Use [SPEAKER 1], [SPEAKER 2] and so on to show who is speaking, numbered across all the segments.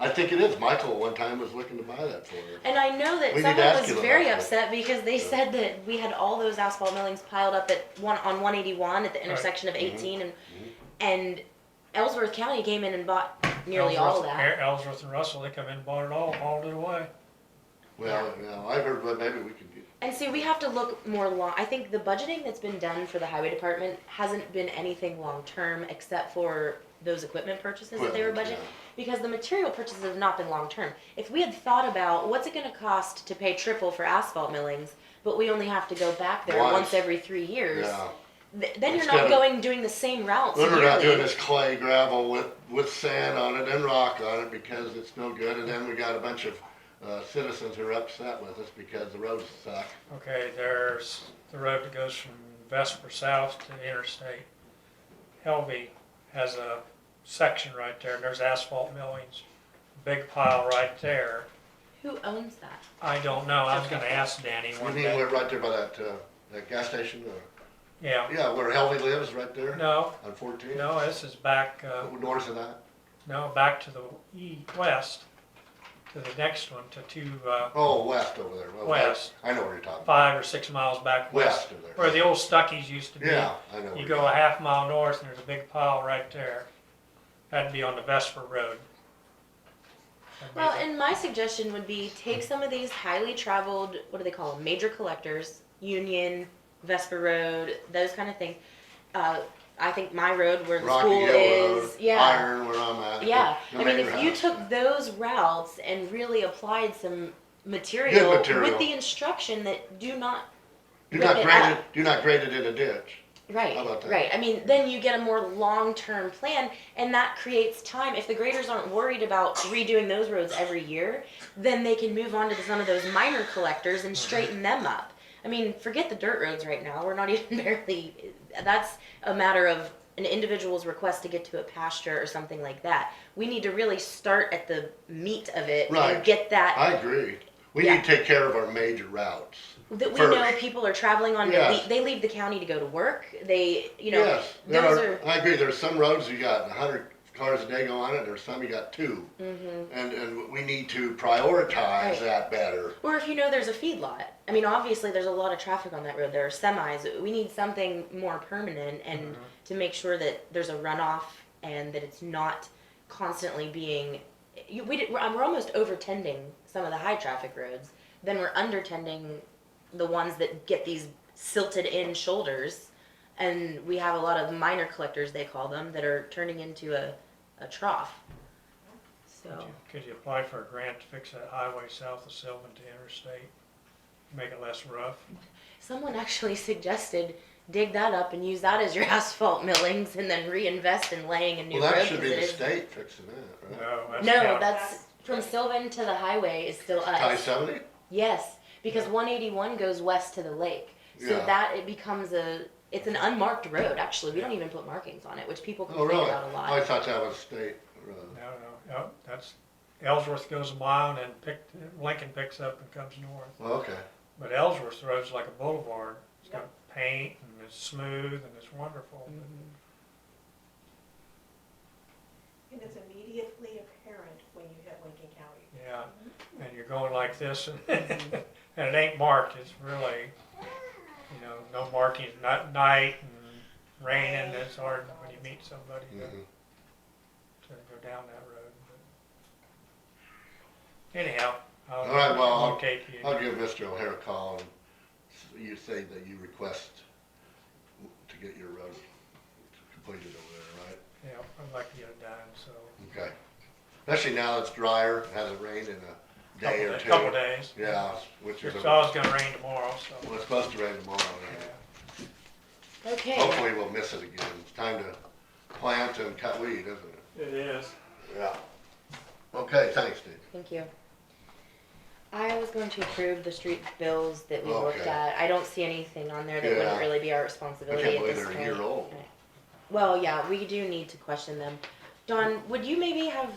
[SPEAKER 1] I think it is. Michael one time was looking to buy that for her.
[SPEAKER 2] And I know that
[SPEAKER 1] We need to
[SPEAKER 2] someone
[SPEAKER 1] ask
[SPEAKER 2] was
[SPEAKER 1] you about
[SPEAKER 2] very
[SPEAKER 1] that.
[SPEAKER 2] upset because they said that we had all those asphalt millings piled up at one, on one eighty-one at the intersection of
[SPEAKER 1] Mm-hmm.
[SPEAKER 2] eighteen and, and Ellsworth County came in and bought nearly all of
[SPEAKER 3] Ellsworth-
[SPEAKER 2] that.
[SPEAKER 3] Er- Ellsworth and Russell, they come in and bought it all, hauled it away.
[SPEAKER 1] Well, no, I've heard, but maybe we could. do-
[SPEAKER 2] And see, we have to look more long, I think the budgeting that's been done for the highway department hasn't been anything long-term except for those equipment purchases that they were budgeting.
[SPEAKER 1] Equipment,
[SPEAKER 2] Because the material purchases have not been long-term. If we had thought about, what's it gonna cost to pay triple for asphalt millings, but we only have to go back there
[SPEAKER 1] Once.
[SPEAKER 2] once every three years?
[SPEAKER 1] Yeah.
[SPEAKER 2] Th- then you're
[SPEAKER 1] It's
[SPEAKER 2] not
[SPEAKER 1] gotta-
[SPEAKER 2] going doing the same routes
[SPEAKER 1] Then we're not doing
[SPEAKER 2] yearly.
[SPEAKER 1] this clay gravel with, with sand on it and rock on it because it's no good. And then we got a bunch of, uh, citizens who are upset with us because the roads suck.
[SPEAKER 3] Okay, there's the road that goes from Vesper South to the interstate. Helvey has a section right there, and there's asphalt millings, big pile right there.
[SPEAKER 2] Who owns that?
[SPEAKER 3] I don't know, I was gonna ask Danny
[SPEAKER 1] We
[SPEAKER 3] one
[SPEAKER 1] need, we're
[SPEAKER 3] day.
[SPEAKER 1] right there by that, uh, that gas station, uh,
[SPEAKER 3] Yeah,
[SPEAKER 1] yeah, where Helvey lives, right there
[SPEAKER 3] no,
[SPEAKER 1] on fourteen.
[SPEAKER 3] no, this is back, uh,
[SPEAKER 1] North of that.
[SPEAKER 3] no, back to the e- west, to the next one, to two, uh,
[SPEAKER 1] Oh, west over there. Well,
[SPEAKER 3] West.
[SPEAKER 1] I know what you're talking about.
[SPEAKER 3] five or six miles back west.
[SPEAKER 1] West of there.
[SPEAKER 3] Where the old Stuckies used to be.
[SPEAKER 1] Yeah, I know. what
[SPEAKER 3] You
[SPEAKER 1] you're
[SPEAKER 3] go a
[SPEAKER 1] talking
[SPEAKER 3] half mile north and there's a big pile right there. That'd be on the Vesper Road. That'd be
[SPEAKER 2] Well,
[SPEAKER 3] the-
[SPEAKER 2] and my suggestion would be take some of these highly traveled, what do they call them, major collectors, Union, Vesper Road, those kind of things. Uh, I think my road where the
[SPEAKER 1] Rocky
[SPEAKER 2] school
[SPEAKER 1] Hill Road,
[SPEAKER 2] is, yeah,
[SPEAKER 1] Iron, where I'm at.
[SPEAKER 2] yeah.
[SPEAKER 1] the-
[SPEAKER 2] I
[SPEAKER 1] the
[SPEAKER 2] mean,
[SPEAKER 1] neighbor
[SPEAKER 2] if you
[SPEAKER 1] house.
[SPEAKER 2] took those routes and really applied some material with
[SPEAKER 1] material.
[SPEAKER 2] the instruction that do not
[SPEAKER 1] Do
[SPEAKER 2] rip
[SPEAKER 1] not
[SPEAKER 2] it
[SPEAKER 1] grade
[SPEAKER 2] up.
[SPEAKER 1] it, do not grade it in a ditch.
[SPEAKER 2] Right,
[SPEAKER 1] How about that?
[SPEAKER 2] right. I mean, then you get a more long-term plan, and that creates time. If the graders aren't worried about redoing those roads every year, then they can move on to some of those minor collectors
[SPEAKER 1] Mm-hmm.
[SPEAKER 2] and straighten them up. I mean, forget the dirt roads right now. We're not even barely. That's a matter of an individual's request to get to a pasture or something like that. We need to really start at the meat of it
[SPEAKER 1] Right.
[SPEAKER 2] and get that
[SPEAKER 1] I agree. We
[SPEAKER 2] Yeah.
[SPEAKER 1] need to take care of our major routes.
[SPEAKER 2] that we
[SPEAKER 1] First.
[SPEAKER 2] know people are traveling on.
[SPEAKER 1] Yes.
[SPEAKER 2] They leave the county to go to work. They, you know,
[SPEAKER 1] Yes, there
[SPEAKER 2] those
[SPEAKER 1] are, I agree, there's some roads you got a hundred cars a day go on it, there's some you got two. And, and we need to
[SPEAKER 2] Mm-hmm. Right.
[SPEAKER 1] prioritize that better.
[SPEAKER 2] Or if you know there's a feedlot. I mean, obviously, there's a lot of traffic on that road. There are semis. We need something more permanent and to make sure that there's a runoff and that it's not constantly being. You, we did, we're, we're almost over tending some of the high traffic roads. Then we're under tending the ones that get these silted in shoulders. And we have a lot of minor collectors, they call them, that are turning into a, a trough.
[SPEAKER 3] Could
[SPEAKER 2] So,
[SPEAKER 3] you- Could you apply for a grant to fix that highway south of Sylvan to interstate? Make it less rough?
[SPEAKER 2] Someone actually suggested dig that up and use that as your asphalt millings and then reinvest in laying a new
[SPEAKER 1] Well,
[SPEAKER 2] road.
[SPEAKER 1] that should be
[SPEAKER 2] 'cause
[SPEAKER 1] the
[SPEAKER 2] it is-
[SPEAKER 1] state fixing that, right?
[SPEAKER 3] No, that's.
[SPEAKER 2] No,
[SPEAKER 3] county.
[SPEAKER 2] that's from Sylvan to the highway is still
[SPEAKER 1] I
[SPEAKER 2] us.
[SPEAKER 1] seventy?
[SPEAKER 2] Yes, because one eighty one goes west to the lake. So
[SPEAKER 1] Yeah.
[SPEAKER 2] that it becomes a it's an unmarked road actually. We don't even put markings on it, which people
[SPEAKER 1] Oh,
[SPEAKER 2] complain
[SPEAKER 1] really?
[SPEAKER 2] about a lot.
[SPEAKER 1] I thought that was state road.
[SPEAKER 3] No, no, no, that's, Ellsworth goes a mile and then picked, Lincoln picks up and comes north.
[SPEAKER 1] Well, okay.
[SPEAKER 3] But Ellsworth Road's like a boulevard. It's got paint and it's smooth and it's wonderful.
[SPEAKER 2] Mm-hmm.
[SPEAKER 4] And it's immediately apparent when you hit Lincoln County.
[SPEAKER 3] Yeah, and you're going like this, and, and it ain't marked. It's really, you know, no markings, not night and raining. It's hard when you meet somebody to,
[SPEAKER 1] Mhm.
[SPEAKER 3] to go down that road. But anyhow, I'll,
[SPEAKER 1] All right, well,
[SPEAKER 3] I'll take you.
[SPEAKER 1] I'll give Mr. O'Hare a call and s- you say that you request to get your road completed over
[SPEAKER 3] yeah, I'd like to get it done. So
[SPEAKER 1] there, right? Okay. Especially now it's drier, hasn't rained in a day
[SPEAKER 3] couple,
[SPEAKER 1] or
[SPEAKER 3] a
[SPEAKER 1] two.
[SPEAKER 3] couple days.
[SPEAKER 1] Yeah, which is,
[SPEAKER 3] It's
[SPEAKER 1] a-
[SPEAKER 3] always gonna rain tomorrow, so
[SPEAKER 1] well, it's supposed to rain tomorrow.
[SPEAKER 3] yeah.
[SPEAKER 1] right?
[SPEAKER 2] Okay.
[SPEAKER 1] Hopefully we'll miss it again. It's time to plant and cut weed, isn't it?
[SPEAKER 3] It is.
[SPEAKER 1] Yeah. Okay, thanks, Dave.
[SPEAKER 2] Thank you. I was going to approve the street bills that we looked
[SPEAKER 1] Okay.
[SPEAKER 2] at. I don't see anything on there that wouldn't
[SPEAKER 1] Yeah.
[SPEAKER 2] really be our
[SPEAKER 1] I
[SPEAKER 2] responsibility
[SPEAKER 1] can't
[SPEAKER 2] at
[SPEAKER 1] believe
[SPEAKER 2] this
[SPEAKER 1] they're
[SPEAKER 2] point.
[SPEAKER 1] a year old.
[SPEAKER 2] Well, yeah, we do need to question them. Don, would you maybe have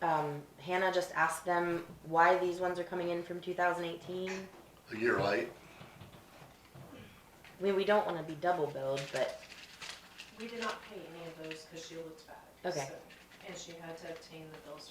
[SPEAKER 2] um, Hannah just ask them why these ones are coming in from 2018?
[SPEAKER 1] A year late.
[SPEAKER 2] I mean, we don't want to be double billed, but
[SPEAKER 4] We did not pay any of those because she looked back.
[SPEAKER 2] Okay.
[SPEAKER 4] so- And she had to obtain the bills